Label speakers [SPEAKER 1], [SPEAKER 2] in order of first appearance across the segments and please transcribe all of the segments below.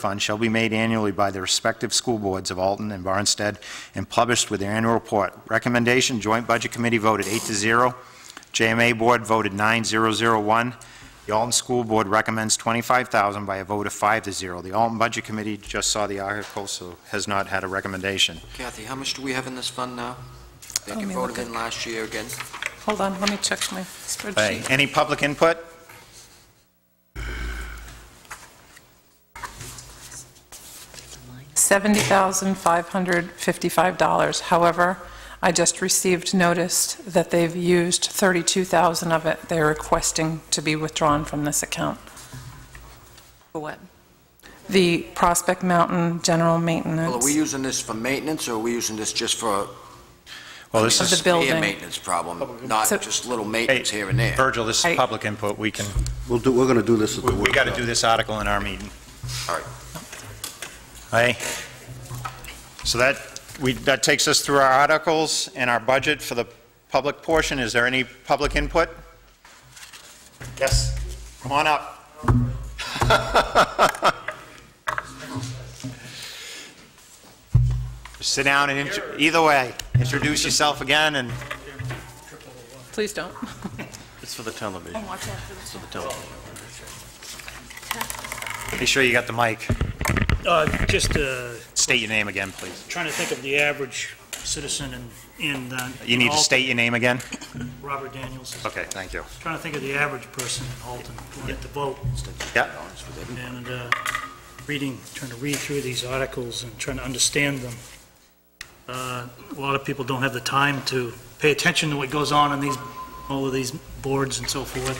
[SPEAKER 1] fund shall be made annually by the respective school boards of Alton and Barnstead and published with their annual report. Recommendation, Joint Budget Committee voted eight to zero. JMA Board voted 9001. The Alton School Board recommends 25,000 by a vote of five to zero. The Alton Budget Committee just saw the article, so has not had a recommendation.
[SPEAKER 2] Kathy, how much do we have in this fund now? That
[SPEAKER 3] Let
[SPEAKER 2] you
[SPEAKER 3] me
[SPEAKER 2] voted
[SPEAKER 3] look
[SPEAKER 2] in last year again?
[SPEAKER 3] Hold on, let me check my
[SPEAKER 1] Hey,
[SPEAKER 3] spreadsheet.
[SPEAKER 1] Any public input?
[SPEAKER 3] $70,555. However, I just received notice that they've used 32,000 of it. They're requesting to be withdrawn from this account.
[SPEAKER 4] For what?
[SPEAKER 3] The Prospect Mountain General Maintenance.
[SPEAKER 2] Well, are we using this for maintenance, or are we using this just for?
[SPEAKER 1] Well, this
[SPEAKER 2] I mean,
[SPEAKER 1] is,
[SPEAKER 3] the building.
[SPEAKER 2] Severe maintenance problem, not
[SPEAKER 3] So-
[SPEAKER 2] just little
[SPEAKER 1] hey,
[SPEAKER 2] maintenance here and there.
[SPEAKER 1] Virgil, this is
[SPEAKER 3] Hey.
[SPEAKER 1] public input. We can,
[SPEAKER 5] We'll do, we're going to do this at the
[SPEAKER 1] we-
[SPEAKER 5] workshop.
[SPEAKER 1] we got to do this article in our meeting.
[SPEAKER 2] All right.
[SPEAKER 1] Aye. So that, we, that takes us through our articles and our budget for the public portion. Is there any public input? Yes, come on up. Sit down and, intro- either way, introduce yourself again and
[SPEAKER 3] Please don't.
[SPEAKER 6] It's for the television. It's for the television.
[SPEAKER 1] make sure you got the mic.
[SPEAKER 7] Uh, Just uh,
[SPEAKER 1] State your name again, please.
[SPEAKER 7] trying to think of the average citizen in, in... uh,
[SPEAKER 1] You need to
[SPEAKER 7] Alton.
[SPEAKER 1] state your name again?
[SPEAKER 7] Robert Daniels.
[SPEAKER 1] Okay, thank you.
[SPEAKER 7] Trying to think of the average person in Alton who had to vote
[SPEAKER 1] Yeah,
[SPEAKER 7] and uh, reading, trying to read through these articles and trying to understand them. Uh, A lot of people don't have the time to pay attention to what goes on in these, all of these boards and so forth.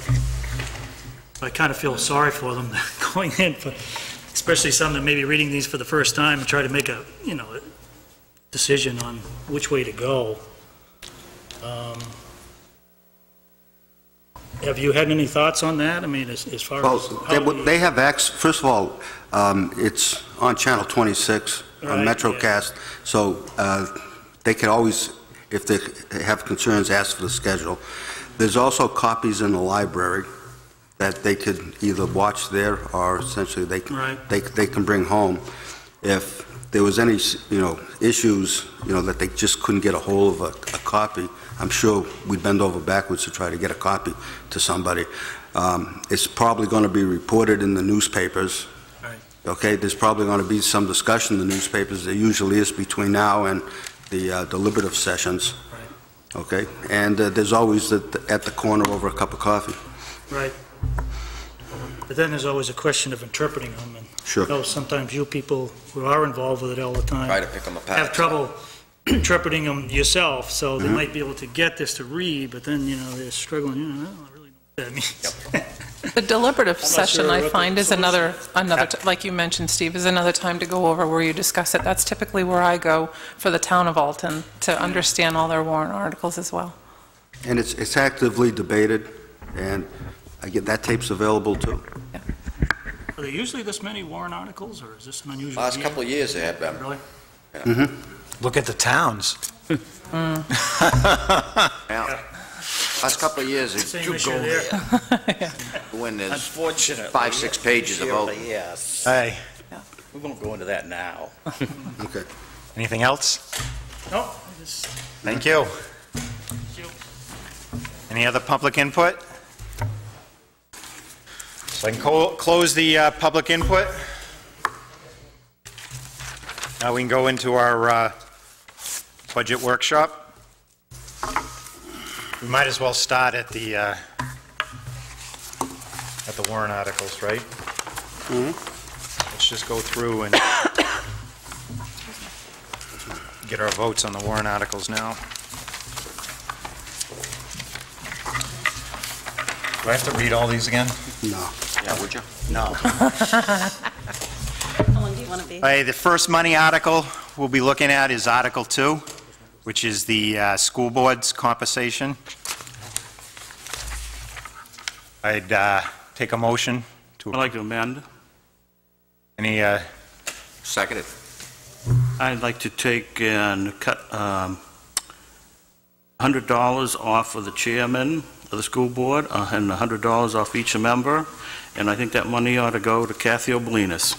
[SPEAKER 7] I kind of feel sorry for them going in, but especially some that may be reading these for the first time and try to make a, you know, a decision on which way to go. Um, Have you had any thoughts on that? I mean, as as far as...
[SPEAKER 5] Well,
[SPEAKER 7] how
[SPEAKER 5] they
[SPEAKER 7] do
[SPEAKER 5] would-
[SPEAKER 7] you-
[SPEAKER 5] they have acts, first of all, um, it's on Channel 26, on
[SPEAKER 7] Right, yeah.
[SPEAKER 5] MetroCast, so uh, they can always, if they have concerns, ask for the schedule. There's also copies in the library that they could either watch there or essentially they can
[SPEAKER 7] Right.
[SPEAKER 5] they, they can bring home. If there was any, you know, issues, you know, that they just couldn't get a hold of a, a copy, I'm sure we'd bend over backwards to try to get a copy to somebody. Um, It's probably going to be reported in the newspapers.
[SPEAKER 7] Right.
[SPEAKER 5] Okay, there's probably going to be some discussion in the newspapers, there usually is between now and the uh, deliberative sessions. Okay, and uh, there's always at, the- at the corner over a cup of coffee.
[SPEAKER 7] Right. But then there's always a question of interpreting them, and
[SPEAKER 5] Sure.
[SPEAKER 7] though sometimes you people who are involved with it all the
[SPEAKER 2] Try
[SPEAKER 7] time
[SPEAKER 2] to pick them apart.
[SPEAKER 7] have trouble interpreting them yourself, so
[SPEAKER 2] Mm-hmm.
[SPEAKER 7] they might be able to get this to read, but then, you know, they're struggling, you know, I don't really know what that means.
[SPEAKER 3] The deliberative
[SPEAKER 7] I'm not
[SPEAKER 3] session,
[SPEAKER 7] sure
[SPEAKER 3] I
[SPEAKER 7] what the
[SPEAKER 3] find, is
[SPEAKER 7] solution
[SPEAKER 3] another, another, t- like you mentioned, Steve, is another time to go over where you discuss it. That's typically where I go for the town of Alton, to
[SPEAKER 7] Hmm.
[SPEAKER 3] understand all their warrant articles as well.
[SPEAKER 5] And it's, it's actively debated, and I get, that tape's available too.
[SPEAKER 7] Are there usually this many warrant articles, or is this an unusual
[SPEAKER 2] Last
[SPEAKER 7] year?
[SPEAKER 2] couple of years they have been.
[SPEAKER 7] Really?
[SPEAKER 1] look at the towns.
[SPEAKER 2] Yeah. Last couple of years, it's
[SPEAKER 7] Same
[SPEAKER 2] two
[SPEAKER 7] issue
[SPEAKER 2] gold
[SPEAKER 7] there.
[SPEAKER 2] when there's
[SPEAKER 6] Unfortunately.
[SPEAKER 2] five, six pages about.
[SPEAKER 6] Yes.
[SPEAKER 1] Hey,
[SPEAKER 6] We won't go into that now.
[SPEAKER 5] Okay.
[SPEAKER 1] anything else?
[SPEAKER 7] No, I just-
[SPEAKER 1] Thank you. Any other public input? So I can co- close the uh, public input. Now we can go into our uh, budget workshop. We might as well start at the, uh, at the warrant articles, right? Let's just go through and get our votes on the warrant articles now. Do I have to read all these again?
[SPEAKER 5] No.
[SPEAKER 2] Yeah, would you?
[SPEAKER 1] No.
[SPEAKER 4] How long do you want to be?
[SPEAKER 1] Hey, Uh, the first money article we'll be looking at is Article 2, which is the uh, school board's compensation. I'd uh, take a motion
[SPEAKER 6] I'd
[SPEAKER 1] to,
[SPEAKER 6] like to amend.
[SPEAKER 1] any, uh,
[SPEAKER 2] Seconded.
[SPEAKER 6] I'd like to take and cut um, $100 off of the chairman of the school board uh, and $100 off each member, and I think that money ought to go to Kathy Obelinas.